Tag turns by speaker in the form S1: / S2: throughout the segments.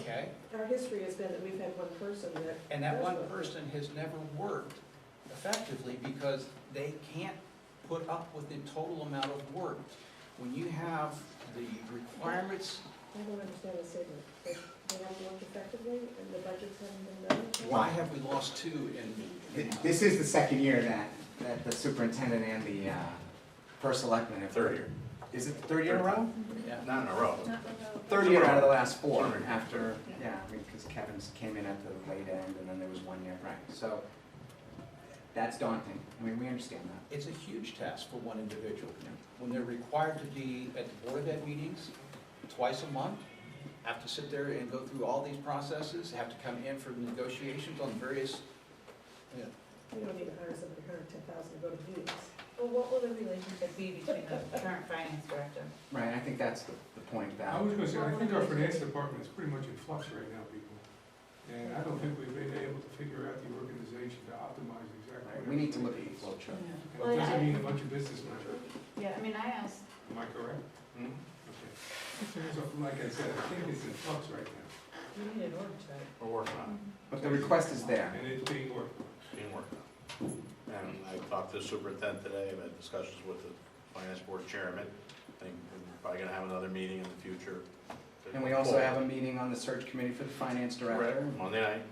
S1: okay?
S2: Our history has been that we've had one person that.
S1: Oh. And that
S2: does
S1: one
S2: work.
S1: person has never worked effectively because they can't put up with the total amount of work. When you have the requirements,
S2: I don't understand the statement, that they have worked effectively and the budgets haven't been done.
S1: why have we lost two in? in-
S3: Th- This is the second year that, that the superintendent and the uh, first selectman have.
S4: Third year,
S3: Is it the third year in a row?
S1: Yeah,
S4: not in a row.
S3: Third year out of the last four
S4: Third year.
S3: after, yeah, I mean, because Kevin's came in at the late end and then there was one year, right, so that's daunting. I mean, we understand that.
S1: It's a huge task for one individual. When they're required to be at the Board of Ed meetings twice a month, have to sit there and go through all these processes, have to come in for negotiations on various, you know,
S2: We don't need to hire somebody, hundred and ten thousand to go to meetings.
S5: Well, what will the relationship be between the current finance director?
S3: Right, I think that's the, the point
S6: I
S3: about,
S6: was gonna say, I think our finance department is pretty much in flux right now, people. And I don't think we've been able to figure out the organization to optimize exactly.
S3: right,
S6: what
S3: we need to look at the
S6: everything
S3: flow chart.
S6: is. And it doesn't mean a bunch of business measures,
S5: Yeah, I mean, I asked,
S6: am I correct?
S4: Hmm?
S6: Okay. So like I said, I think it's in flux right now,
S5: you need an org chart.
S4: We're working on
S3: But the request is there.
S6: and it's being worked on.
S4: it, being worked on. And I talked to the superintendent today, I've had discussions with the finance board chairman. I think we're probably gonna have another meeting in the future.
S3: And we also have a meeting on the search committee for the finance director.
S4: Right, Monday night,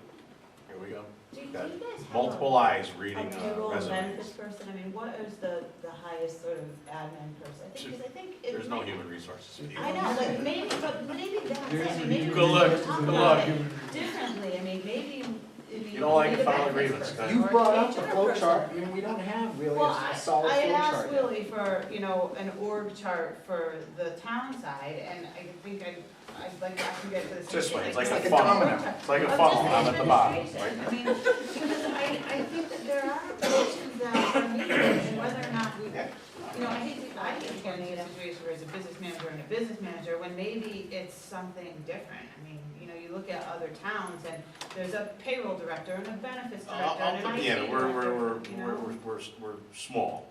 S4: here we go.
S5: Do do you
S4: Got
S5: guys have a-
S4: Multiple eyes reading
S5: a
S4: uh,
S5: payroll and benefits
S4: resumes.
S5: person? I mean, what is the, the highest sort of admin person? I think, because I think. it
S4: There's no
S5: might-
S4: human resources.
S5: I know, but maybe, but maybe that's
S6: There's
S5: it.
S6: a
S5: I mean, Maybe
S6: human
S4: Good
S5: we
S4: luck,
S5: should
S6: resources
S5: talk
S6: and
S4: good
S6: not
S5: about
S4: luck.
S6: human
S5: it
S6: resources.
S5: differently. I mean, maybe, I mean.
S4: You don't like
S5: we
S4: to
S5: need a
S4: file a
S5: benefits
S4: grievance,
S5: person
S3: You
S5: or
S3: brought
S5: an
S3: up the
S5: HR
S3: flow
S5: person.
S3: chart, I mean, we don't have really a
S5: Well,
S3: a
S5: I,
S3: solid
S5: I
S3: flow
S5: had
S3: chart
S5: asked
S3: yet.
S5: Willie for, you know, an org chart for the town side, and I think I, I'd like to actually get to this.
S4: This way, it's like
S3: It's
S4: a
S3: like a
S4: funnel,
S3: domino.
S4: it's like a funnel, I'm at the bottom. right?
S5: I mean, because I, I think that there are positions that are needed, and whether or not we, you know, I hate, to- I hate getting into a situation where it's a business manager and a business manager, when maybe it's something different. I mean, you know, you look at other towns, and there's a payroll director and a benefits
S4: I'll,
S5: director
S4: I'll
S5: and an
S4: put
S5: IT
S4: you in,
S5: director,
S4: we're, we're, we're,
S5: you
S4: we're,
S5: know?
S4: we're, we're, we're small.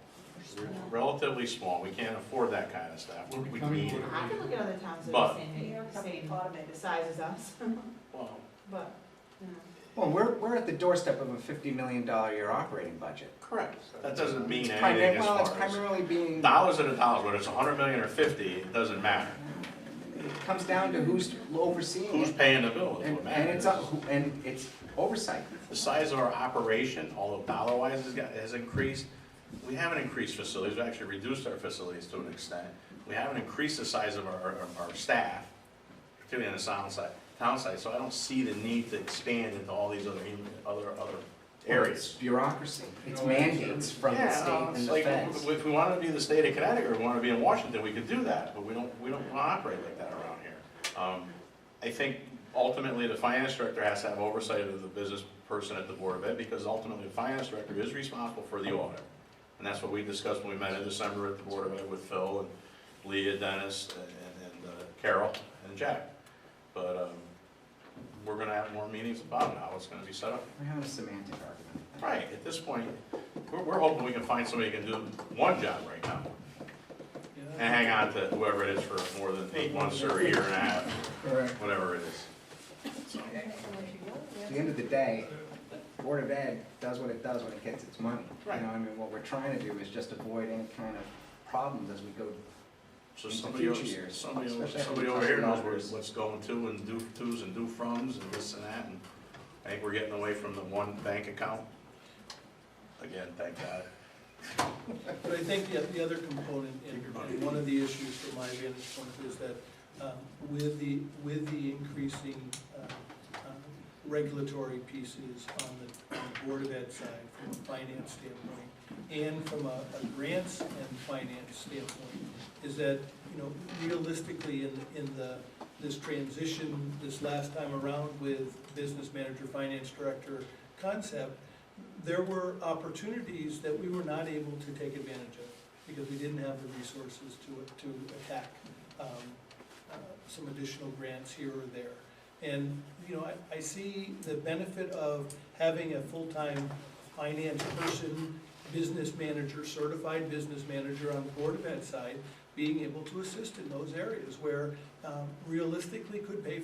S4: We're Relatively small, we can't afford that kind of staff,
S6: We're
S4: We- we
S6: becoming
S4: need,
S6: what-
S5: I could look at other towns that
S4: But-
S5: are the same,
S2: New York's
S5: the same,
S2: automated.
S5: the size as us,
S4: well,
S5: but, you know.
S3: Well, we're, we're at the doorstep of a fifty million dollar year operating budget.
S4: correct, that doesn't mean
S3: It's
S4: anything
S3: primar-
S4: as
S3: Well, it's
S4: far as.
S3: primarily being,
S4: Dollars are the dollars, whether it's a hundred million or fifty, it doesn't matter,
S3: it comes down to who's overseeing
S4: who's
S3: it,
S4: paying the bill is
S3: and,
S4: what
S3: and
S4: matters.
S3: it's, up- who- and it's oversight.
S4: The size of our operation, although dollar wise has got, has increased, we haven't increased facilities, we've actually reduced our facilities to an extent. We haven't increased the size of our, our, our staff, particularly on the sound side, town side, so I don't see the need to expand into all these other, human- other, other
S3: It's
S4: areas.
S3: Bureaucracy, it's
S6: No, that's true.
S3: mandates from the
S4: Yeah,
S3: state
S4: um, it's
S3: and the
S4: like,
S3: feds.
S4: If we wanted to be the state of Connecticut, or we wanted to be in Washington, we could do that, but we don't, we don't wanna operate like that around here. Um, I think ultimately, the finance director has to have oversight of the business person at the Board of Ed, because ultimately, the finance director is responsible for the audit. And that's what we discussed when we met in December at the Board of Ed with Phil and Leah, Dennis, and- and, and uh, Carol, and Jack. But, um, we're gonna have more meetings about it, how it's gonna be set up.
S3: We're having a semantic argument.
S4: Right, at this point, we're, we're hoping we can find somebody who can do one job right now
S1: you know,
S4: and hang on to whoever it is for more than eight months or a year and a half,
S3: Right.
S4: whatever it is.
S3: At the end of the day, Board of Ed does what it does when it gets its money. You know,
S4: Right.
S3: I mean, what we're trying to do is just avoid any kind of problems as we go
S4: So
S3: In the
S4: somebody, over-
S3: future years,
S4: somebody, over-
S3: especially
S4: somebody
S3: after
S4: over here knows
S3: the
S4: where-
S3: mergers.
S4: what's going to and do tos and do froms and this and that, and I think we're getting away from the one bank account. Again, thank God.
S7: But I think the, the other component, and and one of the issues from my vantage point is that um, with the, with the increasing um, um, regulatory pieces on the, on the Board of Ed side, from a finance standpoint, and from a a grants and finance standpoint, is that, you know, realistically, in, in the, this transition, this last time around with business manager, finance director concept, there were opportunities that we were not able to take advantage of because we didn't have the resources to, to attack um, uh, some additional grants here or there. And, you know, I, I see the benefit of having a full-time finance person, business manager, certified business manager on the Board of Ed side, being able to assist in those areas where um, realistically could pay